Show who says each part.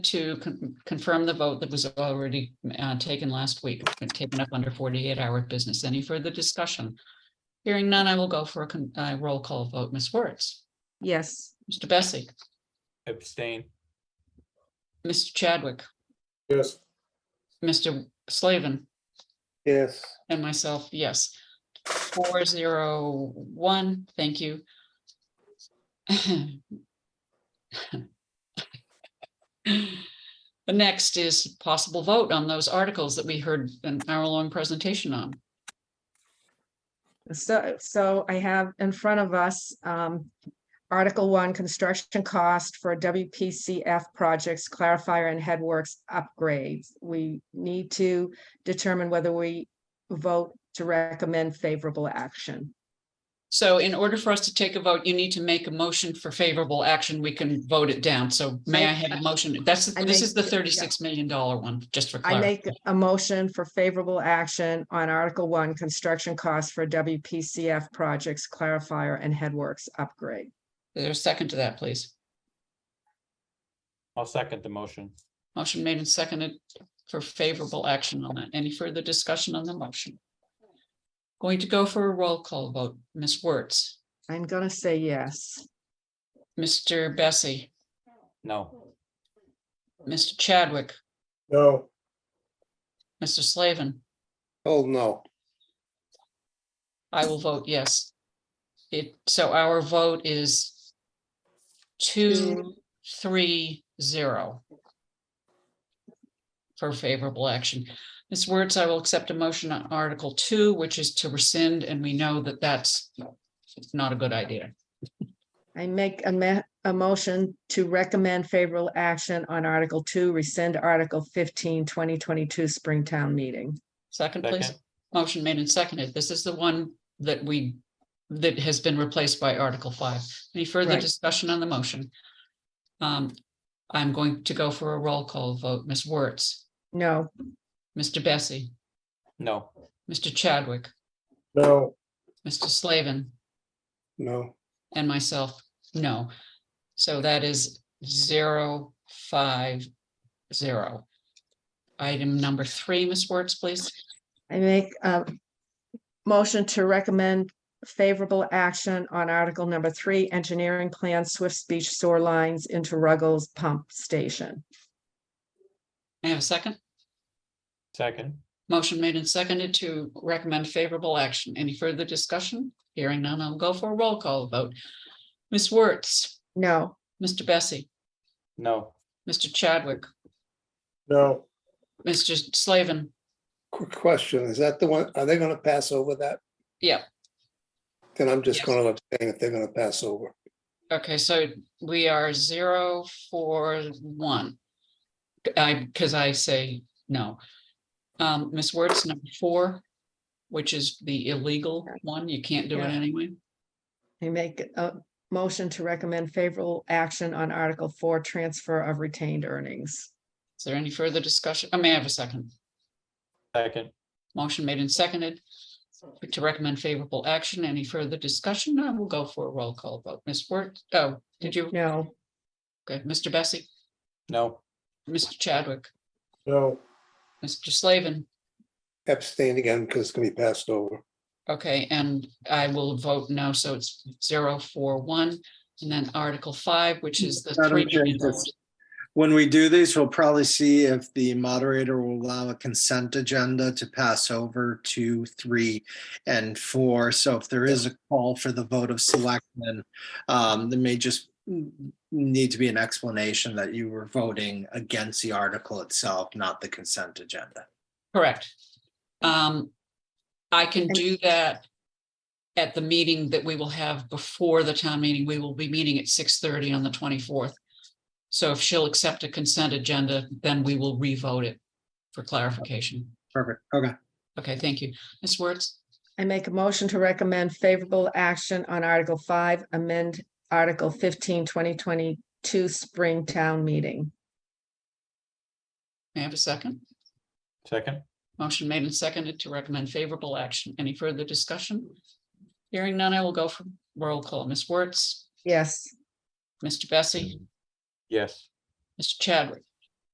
Speaker 1: to con- confirm the vote that was already uh, taken last week, taken up under 48-hour business. Any further discussion? Hearing none, I will go for a con- uh, roll call vote. Ms. Wertz,
Speaker 2: Yes,
Speaker 1: Mr. Bessie,
Speaker 3: abstain,
Speaker 1: Mr. Chadwick,
Speaker 4: Yes.
Speaker 1: Mr. Slavin,
Speaker 4: Yes.
Speaker 1: and myself, yes. Four zero one, thank you. The next is possible vote on those articles that we heard an hour-long presentation on.
Speaker 2: so, so I have in front of us, um, Article One, Construction Cost for WPCF Projects Clarifier and Headworks Upgrades. We need to determine whether we vote to recommend favorable action.
Speaker 1: So in order for us to take a vote, you need to make a motion for favorable action. We can vote it down. So may I have a motion? That's,
Speaker 2: I
Speaker 1: this is the
Speaker 2: make- yeah.
Speaker 1: thirty-six million dollar one, just for
Speaker 2: I make
Speaker 1: clarity.
Speaker 2: a motion for favorable action on Article One, Construction Cost for WPCF Projects Clarifier and Headworks Upgrade.
Speaker 1: There's a second to that, please.
Speaker 3: I'll second the motion.
Speaker 1: Motion made and seconded for favorable action on it. Any further discussion on the motion? Going to go for a roll call vote. Ms. Wertz,
Speaker 2: I'm gonna say yes.
Speaker 1: Mr. Bessie,
Speaker 3: No,
Speaker 1: Mr. Chadwick,
Speaker 4: No.
Speaker 1: Mr. Slavin.
Speaker 4: Oh, no.
Speaker 1: I will vote yes. It, so our vote is two, three, zero for favorable action. Ms. Wertz, I will accept a motion on Article Two, which is to rescind, and we know that that's not a good idea.
Speaker 2: I make a ma- a motion to recommend favorable action on Article Two, rescind Article 15, 2022 Springtown meeting.
Speaker 1: Second, please.
Speaker 3: Second.
Speaker 1: Motion made and seconded. This is the one that we, that has been replaced by Article Five. Any further
Speaker 2: Right.
Speaker 1: discussion on the motion? Um, I'm going to go for a roll call vote. Ms. Wertz.
Speaker 2: No,
Speaker 1: Mr. Bessie,
Speaker 3: no,
Speaker 1: Mr. Chadwick,
Speaker 4: No.
Speaker 1: Mr. Slavin,
Speaker 4: No.
Speaker 1: and myself, no. So that is zero, five, zero. Item number three, Ms. Wertz, please.
Speaker 2: I make a motion to recommend favorable action on Article Number Three, engineering plan Swift Speech Sewer Lines into Ruggles Pump Station.
Speaker 1: May I have a second?
Speaker 3: second,
Speaker 1: Motion made and seconded to recommend favorable action. Any further discussion? Hearing none, I'll go for a roll call vote. Ms. Wertz,
Speaker 2: No,
Speaker 1: Mr. Bessie,
Speaker 3: no,
Speaker 1: Mr. Chadwick,
Speaker 4: No.
Speaker 1: Mr. Slavin,
Speaker 4: Quick question, is that the one, are they gonna pass over that?
Speaker 1: Yeah.
Speaker 4: Then I'm just
Speaker 1: Yes.
Speaker 4: gonna abstain if they're gonna pass over.
Speaker 1: Okay, so we are zero, four, one. I, because I say no. Um, Ms. Wertz, number four, which is the illegal one, you can't do it
Speaker 2: Yeah.
Speaker 1: anyway.
Speaker 2: I make a motion to recommend favorable action on Article Four, transfer of retained earnings.
Speaker 1: Is there any further discussion? I may I have a second.
Speaker 3: second,
Speaker 1: Motion made and seconded to recommend favorable action. Any further discussion? I will go for a roll call vote. Ms. Wertz, oh, did you?
Speaker 2: No.
Speaker 1: Okay, Mr. Bessie,
Speaker 3: no,
Speaker 1: Mr. Chadwick,
Speaker 4: No.
Speaker 1: Mr. Slavin.
Speaker 4: Abstain again, because it's gonna be passed over.
Speaker 1: Okay, and I will vote no, so it's zero, four, one, and then Article five, which is the
Speaker 5: Madam
Speaker 1: three.
Speaker 5: Chair,
Speaker 1: million
Speaker 5: that's-
Speaker 1: dollars.
Speaker 5: When we do these, we'll probably see if the moderator will allow a consent agenda to pass over to three and four. So if there is a call for the vote of selectmen, um, there may just need to be an explanation that you were voting against the article itself, not the consent agenda.
Speaker 1: Correct. Um, I can
Speaker 2: And-
Speaker 1: do that at the meeting that we will have before the town meeting. We will be meeting at six thirty on the twenty-fourth. So if she'll accept a consent agenda, then we will revote it for clarification.
Speaker 5: Perfect. Okay.
Speaker 1: Okay, thank you. Ms. Wertz,
Speaker 2: I make a motion to recommend favorable action on Article Five, amend Article 15, 2022 Spring Town Meeting.
Speaker 1: may I have a second?
Speaker 3: second,
Speaker 1: Motion made and seconded to recommend favorable action. Any further discussion? Hearing none, I will go for roll call. Ms. Wertz,
Speaker 2: Yes,
Speaker 1: Mr. Bessie,
Speaker 3: yes,
Speaker 1: Mr. Chadwick,